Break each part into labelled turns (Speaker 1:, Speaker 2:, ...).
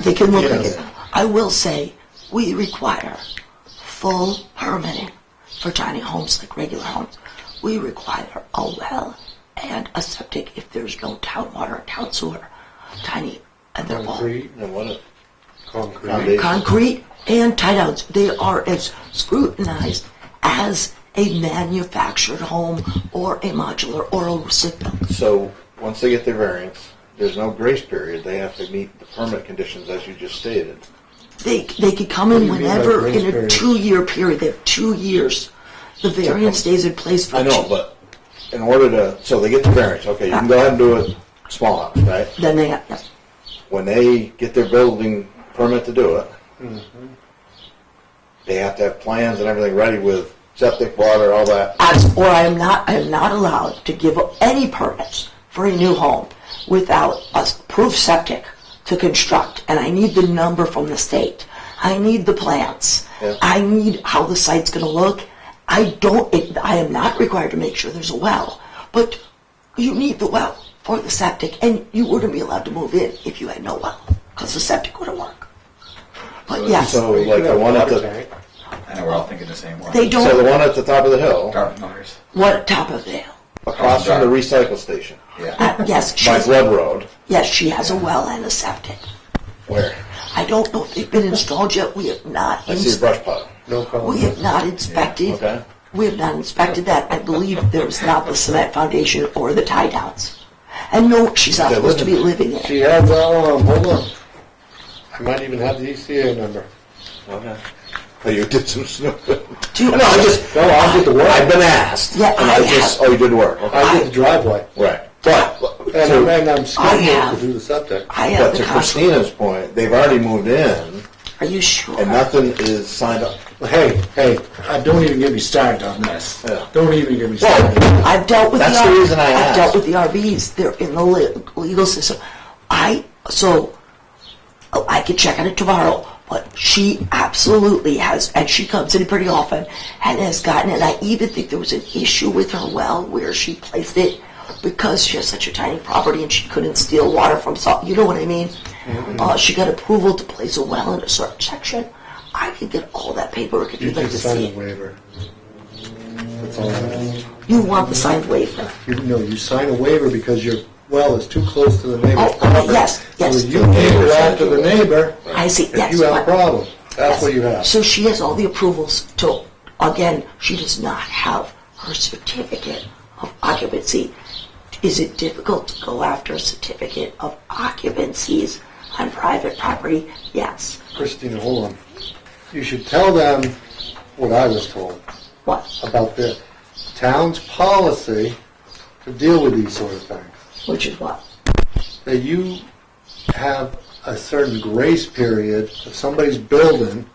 Speaker 1: They can look at
Speaker 2: Yes.
Speaker 1: it. I will say, we require full permitting for tiny homes like regular homes. We require a well and a septic if there's no town water, town sewer, tiny, uh, and they're all
Speaker 2: Concrete and what a
Speaker 3: Foundation.
Speaker 2: concrete.
Speaker 1: concrete and tie downs. They are as scrutinized as a manufactured home or a modular or a sit built.
Speaker 3: So, once they get their variance, there's no grace period. They have to meet the permit conditions as you just stated.
Speaker 1: They, they could come in
Speaker 2: What do you mean by
Speaker 1: whenever
Speaker 2: grace
Speaker 1: in a
Speaker 2: period?
Speaker 1: two year period. They have two years. The variance stays in place for
Speaker 3: I know,
Speaker 1: two.
Speaker 3: but in order to, so they get the variance, okay, you can go ahead and do it small house, right?
Speaker 1: Then they have, yes.
Speaker 3: When they get their building permit to do it, Mm-hmm. they have to have plans and everything ready with septic, water, all that.
Speaker 1: As, or I am not, I am not allowed to give any permits for a new home without a s- proof septic to construct, and I need the number from the state. I need the plans.
Speaker 3: Yeah.
Speaker 1: I need how the site's gonna look. I don't, it, I am not required to make sure there's a well, but you need the well for the septic, and you wouldn't be allowed to move in if you had no well, because the septic wouldn't work. But yes,
Speaker 3: So like the one at the,
Speaker 4: I know we're all thinking the same way.
Speaker 1: they
Speaker 3: so the
Speaker 1: don't,
Speaker 3: one at the top of the hill,
Speaker 4: Dark matters.
Speaker 1: what top of the hill?
Speaker 3: across from the recycle station,
Speaker 4: Yeah.
Speaker 1: Uh, yes,
Speaker 3: by
Speaker 1: she's-
Speaker 3: Blood Road,
Speaker 1: Yes, she has a well and a septic.
Speaker 3: where?
Speaker 1: I don't know if they've been installed yet. We have not.
Speaker 3: I see a
Speaker 1: ins-
Speaker 3: brush pile.
Speaker 2: No
Speaker 1: We have
Speaker 2: concrete.
Speaker 1: not inspected.
Speaker 3: okay.
Speaker 1: We have not inspected that. I believe there was not the cement foundation or the tie downs. And no, she's not
Speaker 3: They're
Speaker 1: supposed to be living
Speaker 3: living-
Speaker 1: in
Speaker 2: She
Speaker 1: it.
Speaker 2: has that one, hold on. I might even have the ECA number.
Speaker 3: Okay. Oh, you did some snooping.
Speaker 1: Do you-
Speaker 3: No, I just.
Speaker 2: No, I'll get the work.
Speaker 3: I've been asked.
Speaker 1: Yeah,
Speaker 3: And
Speaker 1: I
Speaker 3: I just, oh, you did work, okay.
Speaker 2: I get the driveway.
Speaker 3: Right. But,
Speaker 2: And
Speaker 3: to-
Speaker 2: I'm, and I'm scheduled
Speaker 1: have-
Speaker 2: to do the septic.
Speaker 1: I
Speaker 3: but
Speaker 1: have the
Speaker 3: to
Speaker 1: contract.
Speaker 3: Christina's point, they've already moved in
Speaker 1: Are you sure?
Speaker 3: and nothing is signed up.
Speaker 2: Hey, hey, I don't even get me started on this.
Speaker 3: Yeah.
Speaker 2: Don't even get me started.
Speaker 1: Well, I've dealt with
Speaker 3: That's
Speaker 1: the,
Speaker 3: the
Speaker 1: R-
Speaker 3: reason I
Speaker 1: I've
Speaker 3: asked.
Speaker 1: dealt with the RVs. They're in the le- legal system. I so oh, I could check on it tomorrow. But she absolutely has, and she comes in pretty often, and has gotten. And I even think there was an issue with her well where she placed it because she has such a tiny property and she couldn't steal water from salt. You know what I mean?
Speaker 2: Mm-hmm.
Speaker 1: Uh, she got approval to place a well in a certain section. I could get all that paperwork if
Speaker 2: You
Speaker 1: you'd like
Speaker 2: just
Speaker 1: to
Speaker 2: sign
Speaker 1: see
Speaker 2: a
Speaker 1: it.
Speaker 2: waiver. That's all I'm asking.
Speaker 1: You want the signed waiver.
Speaker 2: You know, you sign a waiver because your well is too close to the neighbor's
Speaker 1: Oh, oh,
Speaker 2: property.
Speaker 1: yes, yes.
Speaker 2: So you gave it out to the neighbor.
Speaker 1: I see, yes,
Speaker 2: If you have
Speaker 1: but-
Speaker 2: a problem, that's
Speaker 1: Yes.
Speaker 2: what you have.
Speaker 1: So she has all the approvals to, again, she does not have her certificate of occupancy. Is it difficult to go after a certificate of occupancies on private property? Yes.
Speaker 2: Christina, hold on. You should tell them what I was told
Speaker 1: What?
Speaker 2: about the town's policy to deal with these sort of things.
Speaker 1: Which is what?
Speaker 2: That you have a certain grace period of somebody's building,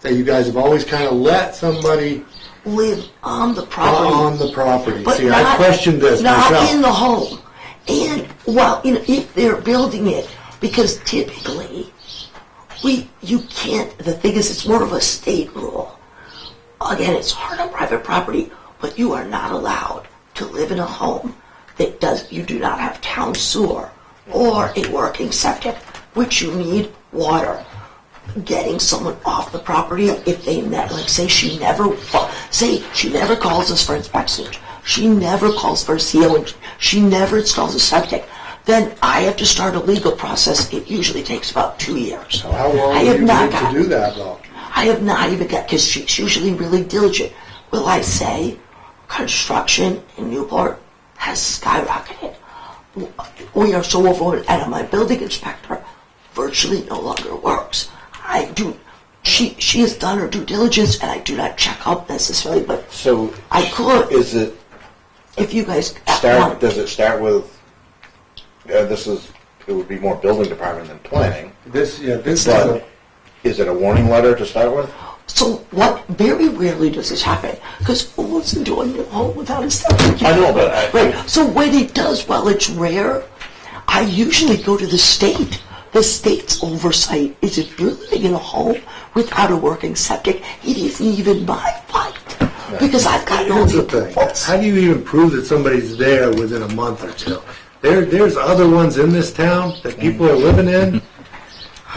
Speaker 2: that you guys have always kind of let somebody
Speaker 1: Live on the property.
Speaker 2: on the property.
Speaker 1: But
Speaker 2: See,
Speaker 1: not,
Speaker 2: I questioned this
Speaker 1: not
Speaker 2: myself.
Speaker 1: in the home. And well, you know, if they're building it, because typically, we you can't. The thing is, it's more of a state rule. Again, it's hard on private property, but you are not allowed to live in a home that does. You do not have town sewer or a working septic, which you need water getting someone off the property if they ne like say she never say she never calls us for inspections she never calls for a CO and she never installs a septic then I have to start a legal process it usually takes about two years
Speaker 2: How long
Speaker 1: I
Speaker 2: do
Speaker 1: have
Speaker 2: you
Speaker 1: not
Speaker 2: need
Speaker 1: got,
Speaker 2: to do that, though?
Speaker 1: I have not even got because she's usually really diligent will I say construction in Newport has skyrocketed we are so overwhelmed, and my building inspector virtually no longer works. I do, she, she has done her due diligence, and I do not check up necessarily, but
Speaker 3: So.
Speaker 1: I could.
Speaker 3: Is it
Speaker 1: if you guys
Speaker 3: start, does it start with, uh, this is, it would be more building department than planning,
Speaker 2: This, yeah, this is a,
Speaker 3: but is it a warning letter to start with?
Speaker 1: So what, very rarely does this happen, because who wants to do a new home without a septic?
Speaker 3: I know, but I-
Speaker 1: Right, so when it does, while it's rare, I usually go to the state. The state's oversight is if you're living in a home without a working septic, it isn't even my fight, because I've got no
Speaker 2: here's the thing.
Speaker 1: approvals.
Speaker 2: How do you even prove that somebody's there within a month or two? There, there's other ones in this town that people are living in